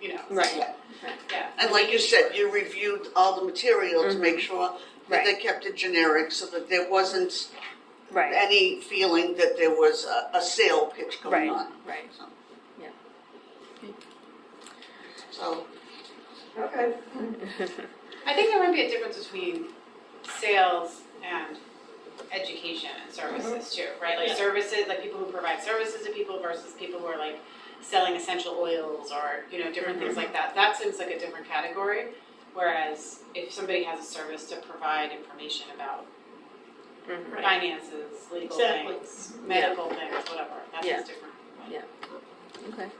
you know. so, Right. Yeah. And like you said, you reviewed all the material to make sure that they Mm-hmm. Right. kept it generic so that there wasn't Right. any feeling that there was a, a sale pitch Right, going on. right. So- Yeah. So, Okay. I think there might be a difference between sales and education and services too, right? Like Yeah. services, like people who provide services to people versus people who are like selling essential oils or, you know, different things like that. That seems like a different category. Whereas if somebody has a service to provide information about Mhm. Right. finances, legal Exactly. things, medical things, whatever, that Yeah. seems different. Okay.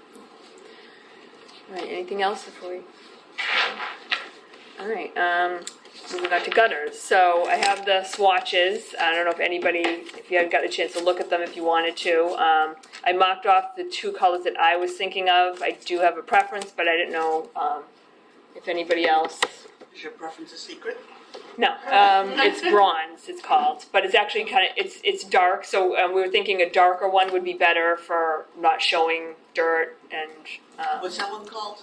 All right, anything else before we? All right, um, moving on to gutters. So I have the swatches. I don't know if anybody, if you haven't got a chance to look at them if you wanted to. Um, I mocked off the two colors that I was thinking of. I do have a preference, but I didn't know, um, if anybody else is your preference a secret? no, um, it's bronze. It's called, but it's actually kind of it's it's dark. So um, we were thinking a darker one would be better for not showing dirt and um, Uh, Was that one called?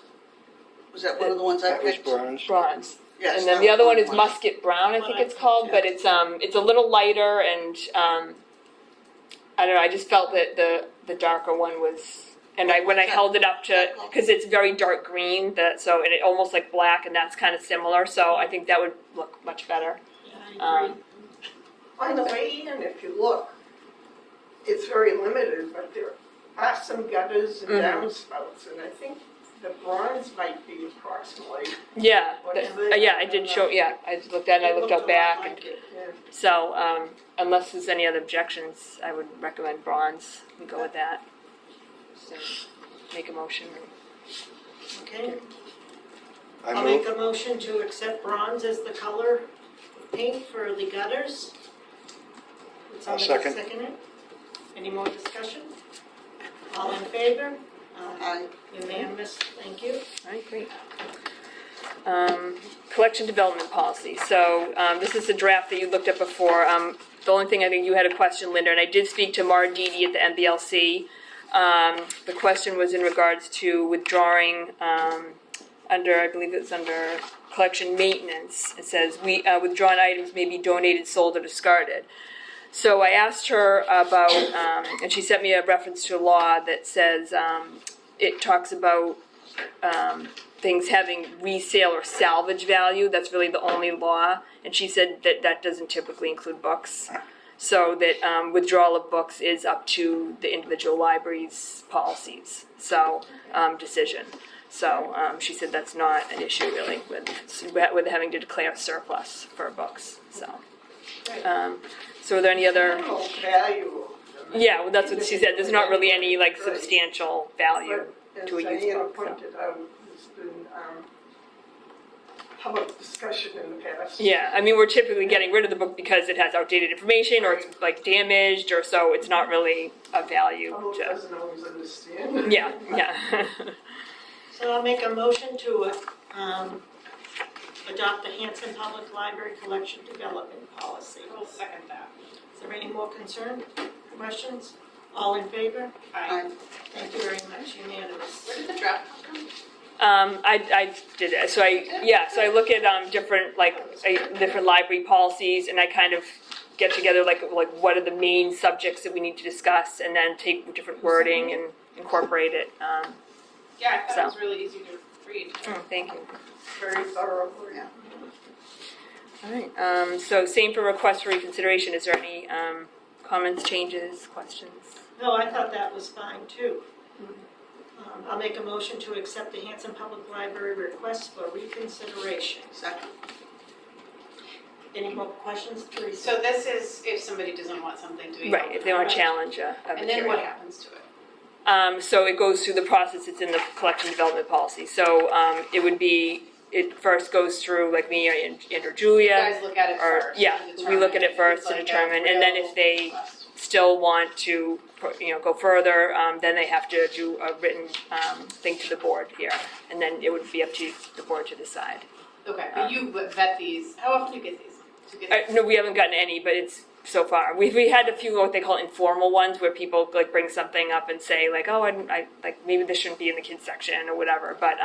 Was that one of the ones I That was picked? bronze. bronze. Yes, and then that the other was one is one. musket brown, I think it's called, but it's um it's a little lighter and um I don't know. I just felt that the the darker one was. And I, when I held it up to, because it's very dark green, that so and it almost like black, and that's kind of similar. So I think that would look much better. Um, By the way, Ian, if you look, it's very limited, but there are some gutters and Mhm. downspouts, and I think the bronze might be approximately. Yeah, What that- is it? uh, yeah, I did show, yeah, I just looked at it, I looked up back, and so, um, unless there's any other objections, I would recommend bronze, we go with that. So, make a motion, Okay, I I'll make move, a motion to accept bronze as the color paint for the gutters. Would I'll somebody second. it? Any more discussion? All in favor? Aye. I, Unanimous, thank you. alright, great. Um, collection development policy, so, um, this is the draft that you looked at before, um, the only thing, I think you had a question, Linda, and I did speak to Mara Didi at the MBLC. Um, the question was in regards to withdrawing, um, under, I believe it's under collection maintenance. It says, we, uh, withdrawn items may be donated, sold, or discarded. So I asked her about, um, and she sent me a reference to a law that says, um, it talks about, um, things having resale or salvage value. That's really the only law. And she said that that doesn't typically include books. So that, um, withdrawal of books is up to the individual library's policies, so, um, decision. So um, she said that's not an issue really with with having to declare surplus for books. So, um, so are there any other? Minimal value of them. Yeah, well, that's what she said. There's not really any like substantial value. As to a used Diana book, so. pointed out, there's been, um, public discussion in the past. Yeah, I mean we're typically getting rid of the book because it has outdated information or it's like damaged or so it's not really a value. Public To, doesn't always understand. yeah, yeah. So I'll make a motion to um, adopt the Hanson Public Library Collection Development Policy. We'll second that. Is there any more concern, questions? All in favor? Aye. I, Thank you very much, unanimous. Where did the draft come from? Um, I, I did it. So I, yeah, so I look at, um, different, like, I- different library policies and I kind of get together, like, like what are the main subjects that we need to discuss and then take different wording and incorporate it. Um, Yeah, I thought it So. was really easy to read. oh, thank you. Very thorough. All right. Um, so same for request for reconsideration. Is there any, um, comments, changes, questions? No, I thought that was fine too. Um, I'll make a motion to accept the Hanson Public Library request for reconsideration. second, Any more questions, So Teresa? this is if somebody doesn't want something to be. Right, if they want to challenge a, a And then what material. happens to it? Um, so it goes through the process, it's in the collection development policy, so, um, it would be, it first goes through, like me and, and or You Julia, guys look at it or, first. yeah, and we look at determine it if first it's to like a determine, and then real if they request. still want to, you know, go further, um, then they have to do a written, um, thing to the board here, and then it would be up to the board to decide. Okay, but you vet these, how often do you get these? Do you get I, Uh, no, we haven't gotten any, but it's so far. We we had a few what they call informal ones where people like bring something up and say like, oh, I, I like maybe this shouldn't be in the kids section or whatever. But